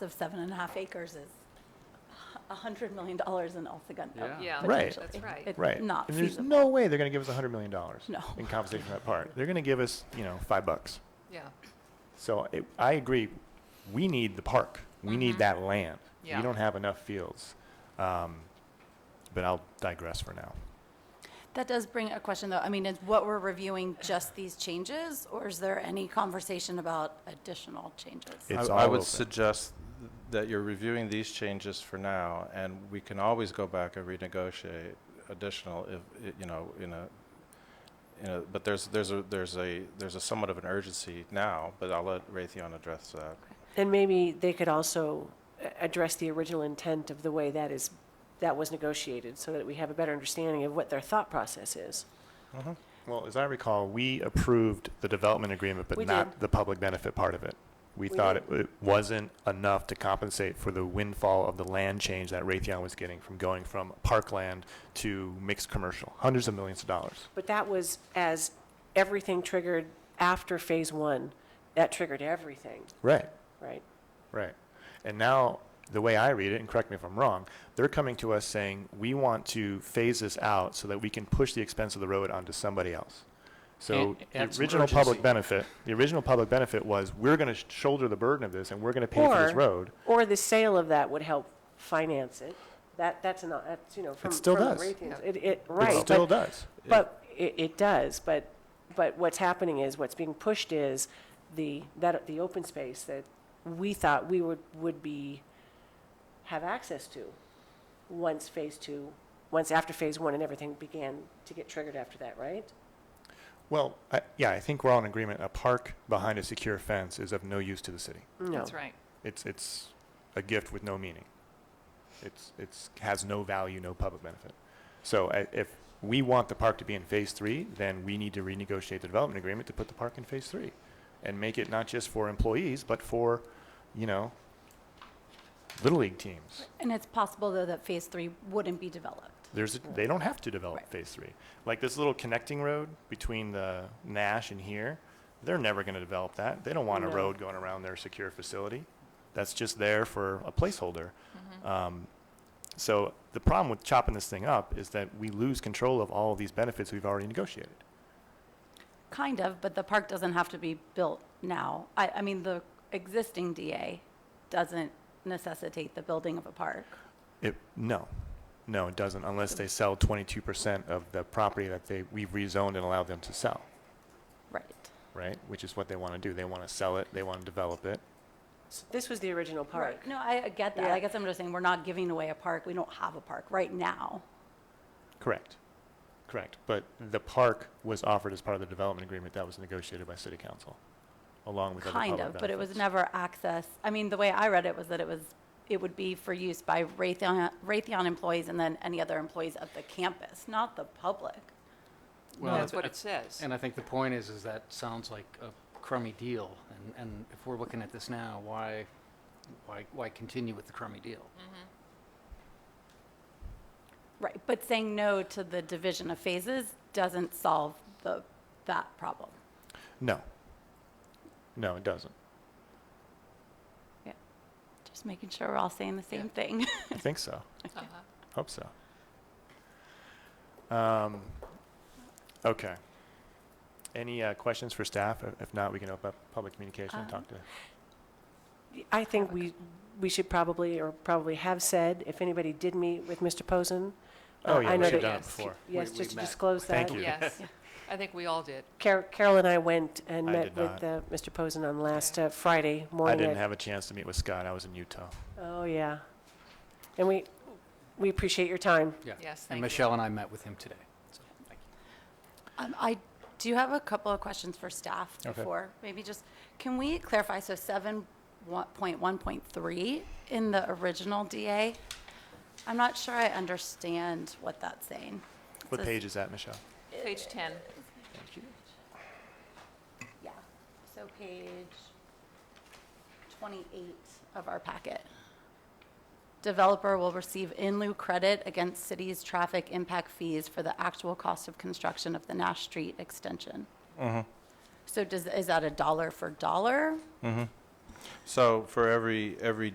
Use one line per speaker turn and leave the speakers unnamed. the seven and a half acres is a $100 million in Alsagundo.
Yeah.
Yeah,
Right.
that's
It-
right.
it's
Right.
Not
And there's
feasible.
no way they're going to give us $100 million
No.
in compensation for that part. They're going to give us, you know, five bucks.
Yeah,
So it, I agree. We need the park. We need that land.
Yeah.
We don't have enough fields. Um, but I'll digress for now.
That does bring a question, though. I mean, is what we're reviewing just these changes, or is there any conversation about additional changes?
It's
I- I
all
would
open.
suggest that you're reviewing these changes for now, and we can always go back and renegotiate additional if, i- you know, in a, you know, but there's, there's a, there's a, there's a somewhat of an urgency now, but I'll let Raytheon address that.
And maybe they could also a- address the original intent of the way that is, that was negotiated, so that we have a better understanding of what their thought process is.
Well, as I recall, we approved the development agreement, but
We
not
did.
the public benefit part of it. We
We
thought it
did.
it wasn't enough to compensate for the windfall of the land change that Raytheon was getting from going from parkland to mixed commercial, hundreds of millions of dollars.
But that was as everything triggered after phase one, that triggered everything,
Right.
right?
Right. And now, the way I read it, and correct me if I'm wrong, they're coming to us saying, we want to phase this out so that we can push the expense of the road onto somebody else. So
And-
the
and some
original public
urgency.
benefit, the original public benefit was, we're going to shoulder the burden of this and we're going to pay for this
Or-
road.
Or the sale of that would help finance it. That, that's not, that's, you know, from.
still
from
does.
Raytheon's- It, it, right.
It
but-
still does.
But it, it does, but, but what's happening is, what's being pushed is the, that, the open space that we thought we would, would be, have access to once phase two, once after phase one and everything began to get triggered after that, right?
Well, I, yeah, I think we're all in agreement. A park behind a secure fence is of no use to the city.
No.
that's right.
It's, it's a gift with no meaning. It's, it's, has no value, no public benefit. So I- if we want the park to be in phase three, then we need to renegotiate the development agreement to put the park in phase three and make it not just for employees, but for, you know, little league teams.
And it's possible, though, that phase three wouldn't be developed.
There's, a- they don't have to develop
Right.
phase three. Like this little connecting road between the Nash and here, they're never going to develop that. They don't want a
No.
road going around their secure facility. That's just there for a placeholder. Um, so the problem with chopping this thing up is that we lose control of all of these benefits we've already negotiated.
Kind of, but the park doesn't have to be built now. I, I mean, the existing DA doesn't necessitate the building of a park.
It, no, no, it doesn't unless they sell 22% of the property that they, we've rezoned and allowed them to sell,
Right.
right? Which is what they want to do. They want to sell it. They want to develop it.
So This was the original part.
No, I I get that.
Yeah.
I guess I'm just saying, we're not giving away a park. We don't have a park right now.
Correct. Correct. But the park was offered as part of the development agreement that was negotiated by city council, along with other
Kind
public
of, but it was
benefits.
never access, I mean, the way I read it was that it was, it would be for use by Raytheon, Raytheon employees and then any other employees of the campus, not the public.
Well,
That's
I-
what
I-
it says.
And I think the point is, is that sounds like a crummy deal. And, and if we're looking at this now, why, why, why continue with the crummy deal?
Mm.
Right, but saying no to the division of phases doesn't solve the, that problem.
No. No, it doesn't.
Just making sure we're all saying the same thing.
I think so.
Uh-huh.
Hope so. Um, okay. Any uh, questions for staff? If- If not, we can open up public communication and talk to.
I think we, we should probably, or probably have said, if anybody did meet with Mr. Posen. uh,
Oh, yeah,
I
we
know
should have
that-
done it
yes.
before.
Yes,
We- we
just to
met.
disclose that.
Thank you.
Yes, I think we all did.
Car- Carol and I went and
I
met
did
with
not.
uh, Mr. Posen on last
Okay.
uh, Friday morning.
I didn't
at-
have a chance to meet with Scott. I was in Utah.
Oh, yeah. And we, we appreciate your time.
Yeah.
Yes, thank
And
you.
Michelle and I met with him today. So, thank you.
Um, I do have a couple of questions for staff
Okay.
before, maybe just, can we clarify, so seven point one point three in the original DA? I'm not sure I understand what that's saying.
What
Says-
page is that, Michelle?
Page 10.
Yeah, so page twenty-eight of our packet. Developer will receive in lieu credit against city's traffic impact fees for the actual cost of construction of the Nash Street extension. So does, is that a dollar for dollar?
So for every, every